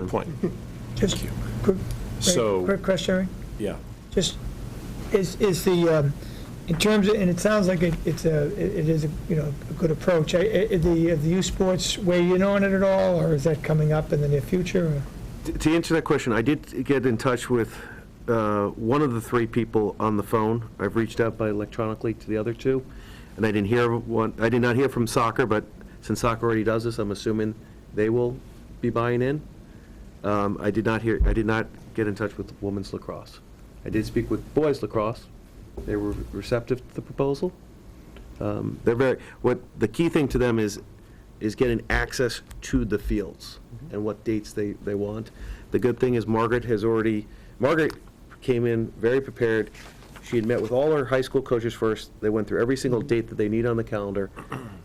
Good point. Just quick, So- quick question, Ray. Yeah. just, is, is the, um, in terms, of and it sounds like it- it's a, it it is, a you know, a good approach. I- I- I- The, uh, the youth sports, weigh in on it at all, or is that coming up in the near future? or- To- To answer that question, I did get in touch with uh, one of the three people on the phone. I've reached out by electronically to the other two, and I didn't hear one, I did not hear from soccer, but since soccer already does this, I'm assuming they will be buying in. Um, I did not hear, I did not get in touch with women's lacrosse. I did speak with boys lacrosse. They were receptive to the proposal. Um, They're very, what, the key thing to them is, is getting access to the fields and what dates they, they want. The good thing is Margaret has already, Margaret came in very prepared. She had met with all her high school coaches first. They went through every single date that they need on the calendar.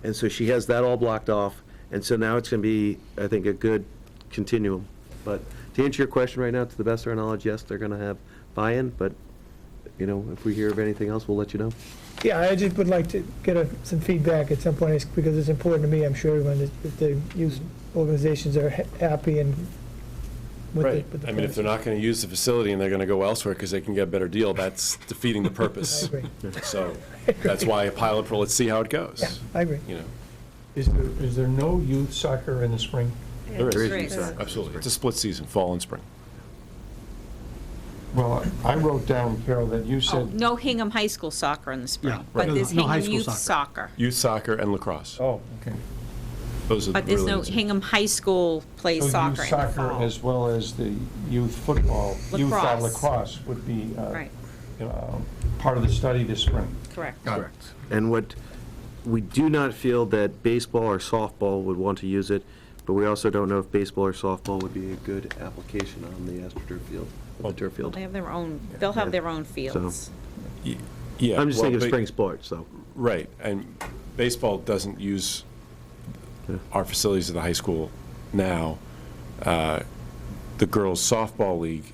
And so she has that all blocked off. And so now it's going to be, I think, a good continuum. But to answer your question right now, to the best of our knowledge, yes, they're going to have buy-in, but, you know, if we hear of anything else, we'll let you know. Yeah, I just would like to get a- some feedback at some point, it's- because it's important to me, I'm sure everyone, that- that the youth organizations are ha- happy and with the. Right. with the I mean, if plans. they're not going to use the facility and they're going to go elsewhere because they can get a better deal, that's defeating the I purpose. agree. So that's why a pilot for, let's see how it goes, I agree. you know. Is there, is there no youth soccer in the spring? There is, Great. Sorry. absolutely. It's a split season, fall and spring. Well, I wrote down, Carol, that you Oh, said, No Hingham High School soccer in the spring, right. but there's No, no high Hingham school soccer. Youth Soccer. Youth soccer and lacrosse. oh, okay. Those are But really. there's no, the two. Hingham High School So plays youth soccer in the Soccer fall. as well as the youth football, youth uh, Lacrosse. lacrosse would be uh, Right, uh, part of the study this spring. correct. Correct. And what, we do not feel that baseball or softball would want to use it, but we also don't know if baseball or softball would be a good application on the AstroTurf field, the turf field. They have their own, they'll have their own fields. Y- Yeah. I'm just well, thinking of ba- spring sports, so. Right, and baseball doesn't use our facilities at the high school now. Uh, The girls softball league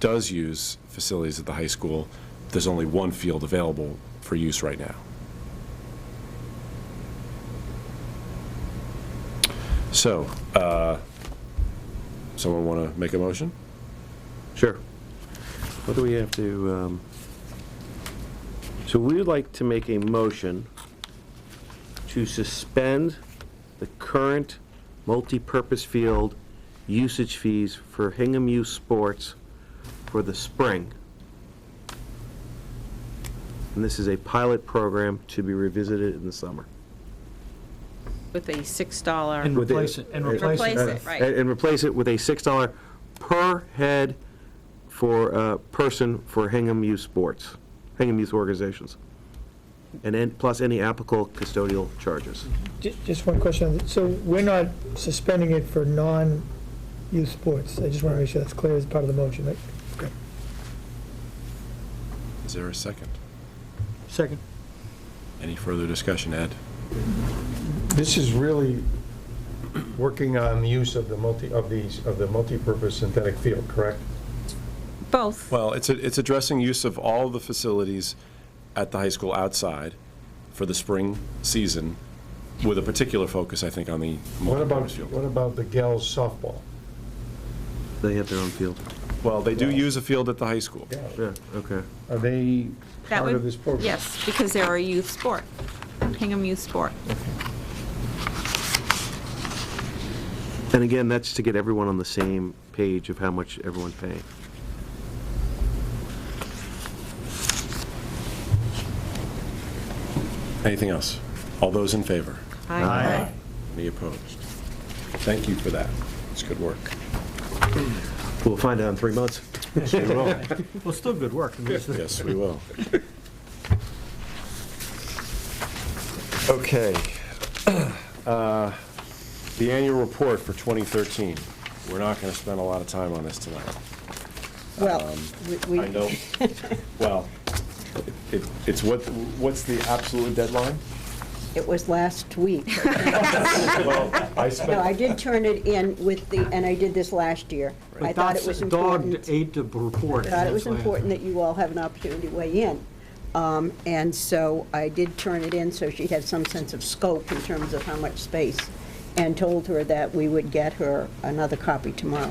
does use facilities at the high school. There's only one field available for use right now. So, uh, someone want to make a motion? Sure. What do we have to, um, so we would like to make a motion to suspend the current multipurpose field usage fees for Hingham Youth Sports for the spring. And this is a pilot program to be revisited in the summer. With a $6, And With replace it, and with- replace it. Replace it, right. And and replace it with a $6 per head for, uh, person for Hingham Youth Sports, Hingham Youth Organizations. And then, plus any applicable custodial charges. Ju- Just one question. So we're not suspending it for non-youth sports? I just want to make sure that's clear as part of the motion. right? Is there a second? Second. Any further discussion, Ed? This is really working on the use of the multi, of these, of the multipurpose synthetic field, correct? both. Well, it's, it's addressing use of all the facilities at the high school outside for the spring season, with a particular focus, I think, on the What about, multi-purpose what field. about the gals softball? They have their own field. Well, they do use a field at the high school. Yeah, okay. Are they That part would- of this program? Yes, because they're a youth sport, Hingham Youth Sport. And again, that's to get everyone on the same page of how much everyone's paying. Anything else? All those in favor? Aye. Any opposed? Thank you for that. It's good work. We'll find out in three months. Well, still good work. I mean, it's- Yes, we will. Okay. Uh, The annual report for 2013. We're not going to spend a lot of time on this tonight. Well, we, Um, I know, well, it- it's what, what's the absolute deadline? it was last week. Well, I No, I spent, did turn it in with the, and I did this last year. I thought it was important. Dog ate the report. I thought it was That's why I- important that you all have an opportunity to weigh in. Um, And so I did turn it in, so she'd have some sense of scope in terms of how much space and told her that we would get her another copy tomorrow.